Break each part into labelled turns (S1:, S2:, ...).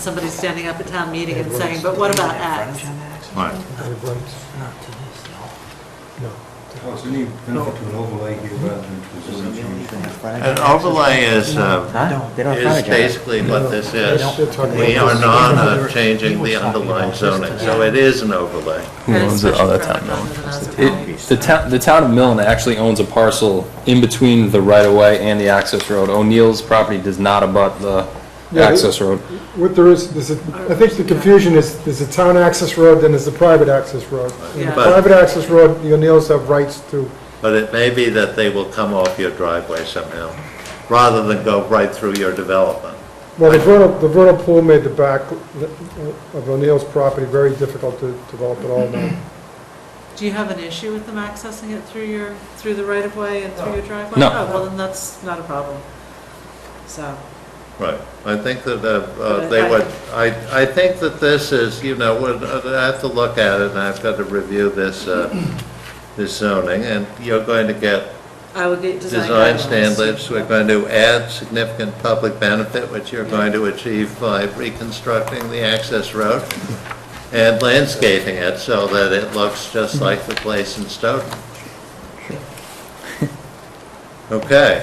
S1: Somebody standing up at town meeting and saying, but what about X?
S2: Right.
S3: Well, it's any benefit to an overlay here rather than to a zone change.
S2: An overlay is, uh,
S4: No, they don't have
S2: is
S4: frontage on it.
S2: basically what this is.
S4: They don't.
S2: We are not uh, changing the underlying zoning, so it is an overlay.
S5: Who owns it? Oh, that's town It, the town, the town of Milne actually owns a parcel in between the right-of-way and the access road. O'Neill's property does not abut the
S6: Yeah, it-
S5: access road.
S6: What there is, there's a, I think the confusion is, there's a town access road, then there's the private access road. And the
S1: Yeah.
S6: private access road, the O'Neills have rights to,
S2: But it may be that they will come off your driveway somehow, rather than go right through your development.
S6: well, the vernal, the vernal pool made the back of O'Neill's property very difficult to develop at all now.
S1: Do you have an issue with them accessing it through your, through the right of way and through your driveway?
S5: No.
S1: Oh, well, then that's not a problem. So,
S2: Right. I think that uh, uh, they would, I, I think that this is, you know, would- I have to look at it, and I've got to review this, uh, this zoning, and you're going to get
S1: I would get design
S2: design
S1: guidelines.
S2: standards, we're going to add significant public benefit, which you're going to achieve by reconstructing the access road and landscaping it so that it looks just like the place in Stoughton. Okay.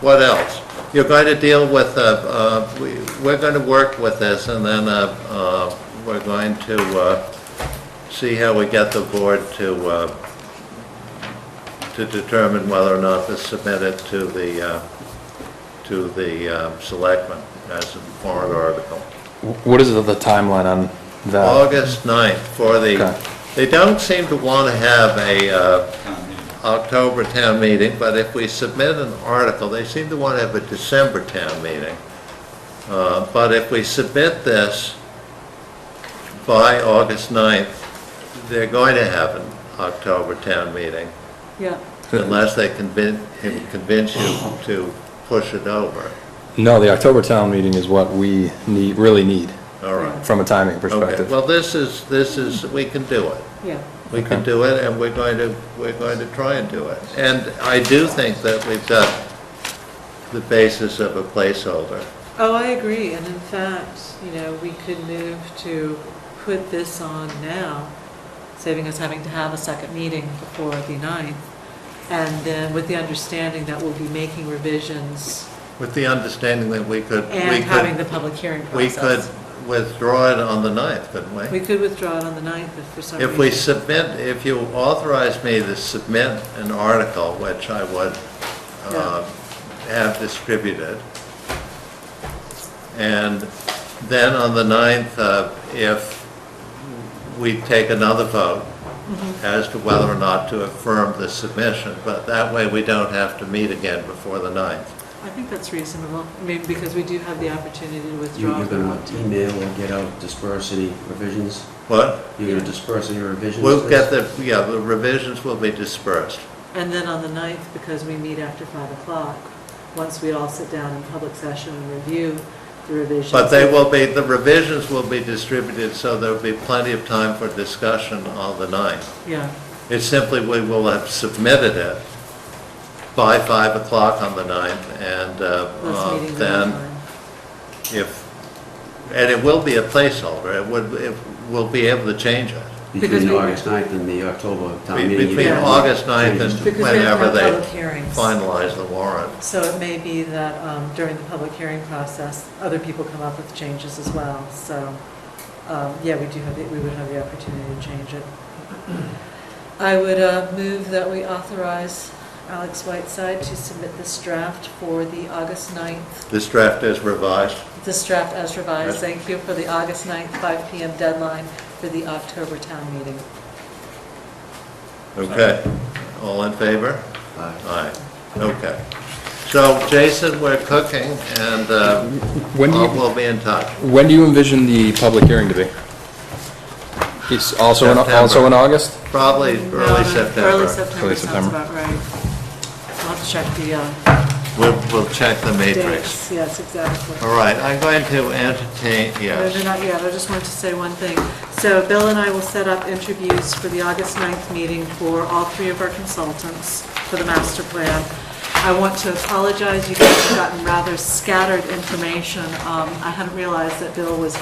S2: What else? You're going to deal with, uh, uh, we, we're going to work with this and then, uh, uh, we're going to, uh, see how we get the board to, uh, to determine whether or not to submit it to the, uh, to the uh, selectmen as a warrant article.
S5: Wh- What is the the timeline on that?
S2: August 9th for
S5: Uh, Okay.
S2: the, they don't seem to want to have a uh, October town meeting, but if we submit an article, they seem to want to have a December town meeting. Uh, But if we submit this by August 9th, they're going to have an October town meeting
S1: Yeah,
S2: unless they convince, can convince you
S1: Oh.
S2: to push it over.
S5: No, the October town meeting is what we need, really need
S2: All right.
S5: from a timing
S2: Okay,
S5: perspective.
S2: well, this is, this is, we can do it.
S1: yeah.
S2: We can
S5: Okay.
S2: do it, and we're going to, we're going to try and do it. And I do think that we've got the basis of a placeholder.
S1: Oh, I agree, and in fact, you know, we could move to put this on now, saving us having to have a second meeting before the 9th, and then with the understanding that we'll be making revisions
S2: With the understanding that we could, we
S1: and having the
S2: could,
S1: public hearing
S2: we
S1: process.
S2: could withdraw it on the 9th, couldn't we?
S1: We could withdraw it on the 9th if for some reason.
S2: If we submit, if you authorize me to submit an article, which I would uh, have distributed, and then on the 9th, uh, if we take another vote as to whether or not to affirm the submission, but that way we don't have to meet again before the 9th.
S1: I think that's reasonable, I mean, because we do have the opportunity to
S4: You-
S1: withdraw.
S4: You're
S1: if we
S4: going
S1: want
S4: to
S1: to.
S4: email and get out disperse any revisions?
S2: But
S4: You're going to disperse any revisions?
S2: we'll get
S4: first?
S2: the, yeah, the revisions will be dispersed.
S1: And then on the 9th, because we meet after 5 o'clock, once we all sit down in public session and review the revisions.
S2: But they will be, the revisions will be distributed, so there'll be plenty of time for discussion on the 9th.
S1: Yeah,
S2: It's simply we will have submitted it by 5 o'clock on the 9th, and uh,
S1: that's
S2: uh,
S1: meeting the
S2: then
S1: deadline.
S2: if, and it will be a placeholder, it would, it- we'll be able to change it.
S1: because
S4: Between
S1: we-
S4: August 9th and the October town
S2: Be-
S4: meeting? you
S2: Between
S4: get-
S2: August 9th
S1: Because
S2: and
S1: we have to
S2: whenever
S1: have
S2: they
S1: public hearings.
S2: finalize the warrant.
S1: So it may be that um, during the public hearing process, other people come up with changes as well. So, um, yeah, we do have, the- we would have the opportunity to change it. I would uh, move that we authorize Alex Whiteside to submit this draft for the August 9th,
S2: This draft is revised.
S1: this draft as revised,
S2: Yes.
S1: thank you, for the August 9th, 5 PM deadline for the October town meeting.
S2: Okay. All in favor?
S4: Aye.
S2: Aye, okay. So Jason, we're cooking and uh,
S5: When do
S2: we'll
S5: you,
S2: we'll be in touch.
S5: when do you envision the public hearing to be? It's also, in- also
S2: September.
S5: in August?
S2: Probably early
S1: Mm-hmm. Early
S2: September.
S1: September
S5: Early
S1: sounds
S5: September.
S1: about right. I'll have to check the uh,
S2: We'll, we'll check the matrix.
S1: dates. Yes, exactly.
S2: All right, I'm going to entertain,
S1: No, no,
S2: yes.
S1: not yet, I just wanted to say one thing. So Bill and I will set up interviews for the August 9th meeting for all three of our consultants for the master plan. I want to apologize, you guys have gotten rather scattered information. Um, I hadn't realized that Bill was